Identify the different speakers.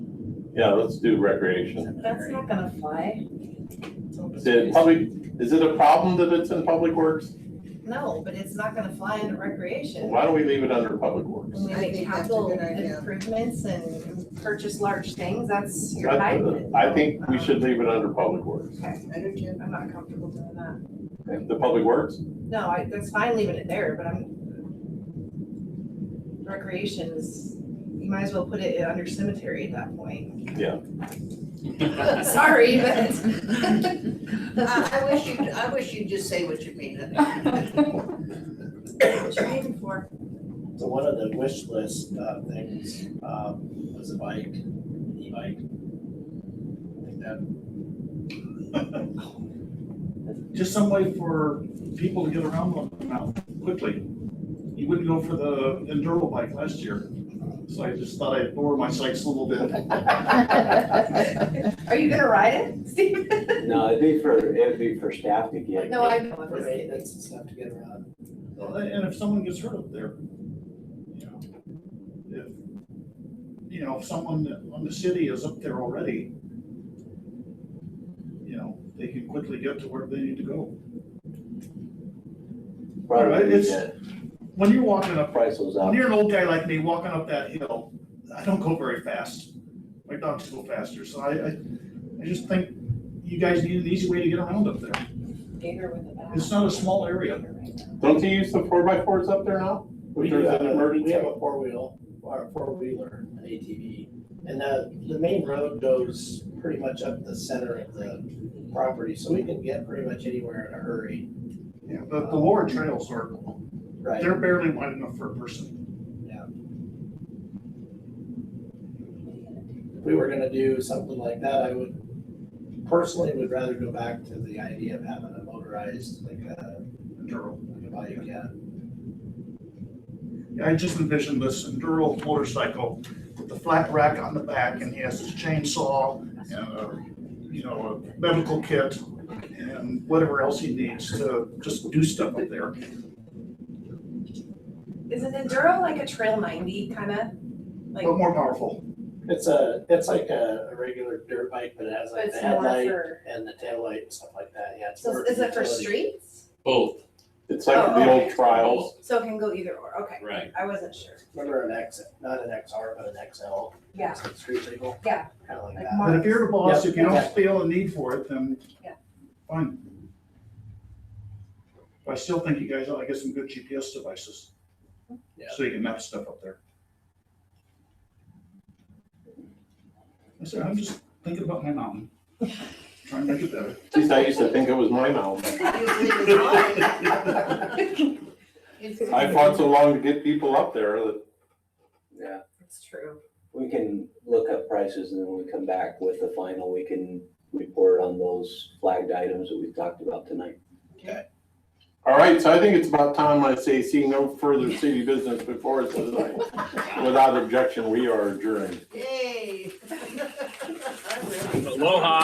Speaker 1: Yeah, let's do recreation.
Speaker 2: That's not gonna fly.
Speaker 1: Did public, is it a problem that it's in public works?
Speaker 2: No, but it's not gonna fly into recreation.
Speaker 1: Why don't we leave it under public works?
Speaker 2: When we
Speaker 3: I
Speaker 2: make
Speaker 3: think that's a
Speaker 2: capital
Speaker 3: good idea.
Speaker 2: improvements and purchase large things, that's your
Speaker 1: That-
Speaker 2: hybrid.
Speaker 1: I think we should leave it under public works.
Speaker 3: Energy.
Speaker 2: I'm not comfortable doing that.
Speaker 1: The public works?
Speaker 2: No, I, that's fine leaving it there, but I'm. Recreation is, you might as well put it under cemetery at that point. Sorry, Ah, but.
Speaker 3: I, I wish you, I wish you'd just say what you mean.
Speaker 2: What you aiming for?
Speaker 4: So one of the wish list uh, things um, was a bike, an e-bike. I think that. Just some way for people to get around one now quickly. You wouldn't go for the enduro bike last year, so I just thought I'd lower my sights a little bit.
Speaker 2: Are you gonna ride it, Steve?
Speaker 5: No, it'd be for, it'd be for staff to get.
Speaker 2: No, I know.
Speaker 6: For maintenance and stuff to get around.
Speaker 4: And if someone gets hurt up there, you know, if, you know, if someone on the city is up there already, you know, they can quickly get to where they need to go.
Speaker 5: Probably,
Speaker 4: It's-
Speaker 5: the
Speaker 4: When you're walking up,
Speaker 5: price was up.
Speaker 4: when you're an old guy like me walking up that hill, I don't go very fast. My dogs go faster, so I, I, I just think you guys need an easy way to get around up there.
Speaker 2: Gator with a bat.
Speaker 4: It's not a small area.
Speaker 1: Don't you use the four by fours up there now? If
Speaker 6: do
Speaker 1: there's
Speaker 6: have
Speaker 1: an
Speaker 6: a- We
Speaker 1: emergency?
Speaker 6: have a four-wheel, or a four-wheeler, an ATV. And the, the main road goes pretty much up the center of the property, so we can get pretty much anywhere in a hurry,
Speaker 4: Yeah, The, the lower trails are,
Speaker 6: right?
Speaker 4: they're barely wide enough for a person.
Speaker 6: If we were gonna do something like that, I would personally would rather go back to the idea of having a motorized, like a,
Speaker 4: Enduro.
Speaker 6: like a bike, yeah.
Speaker 4: Yeah, I just envisioned this enduro motorcycle with the flat rack on the back and he has his chainsaw and, a, you know, a medical kit and whatever else he needs to just do stuff up there.
Speaker 2: Is an enduro like a trail ninety kinda? Like,
Speaker 4: But more powerful.
Speaker 6: It's a, it's like a, a regular dirt bike, but it has
Speaker 2: but
Speaker 6: like the
Speaker 2: it's more
Speaker 6: headlight
Speaker 2: for,
Speaker 6: and the taillight and stuff like that, yeah. it's
Speaker 2: so
Speaker 6: more
Speaker 2: is it for
Speaker 6: utility.
Speaker 2: streets?
Speaker 7: Both,
Speaker 1: It's like the
Speaker 2: Oh,
Speaker 1: old
Speaker 2: okay.
Speaker 1: trials.
Speaker 2: So it can go either or, okay,
Speaker 7: right.
Speaker 2: I wasn't sure.
Speaker 6: Remember an X, not an XR, but an XL?
Speaker 2: Yeah.
Speaker 6: Street legal?
Speaker 2: Yeah.
Speaker 6: Kind of like
Speaker 2: Like
Speaker 6: that.
Speaker 4: But if you're the boss, if you
Speaker 6: Yeah.
Speaker 4: don't feel a need for it, then
Speaker 2: Yeah.
Speaker 4: fine. But I still think you guys ought to get some good GPS devices.
Speaker 6: Yeah.
Speaker 4: So you can map stuff up there. I said, I'm just thinking about my mountain, trying to make it better.
Speaker 1: At least I used to think it was my mountain. I fought so long to get people up there that,
Speaker 5: Yeah,
Speaker 2: It's true.
Speaker 5: we can look up prices and then when we come back with the final, we can report on those flagged items that we talked about tonight.
Speaker 1: all right, so I think it's about time I say, see no further city business before us tonight. Without objection, we are adjourned.
Speaker 3: Yay. I will.
Speaker 7: Aloha.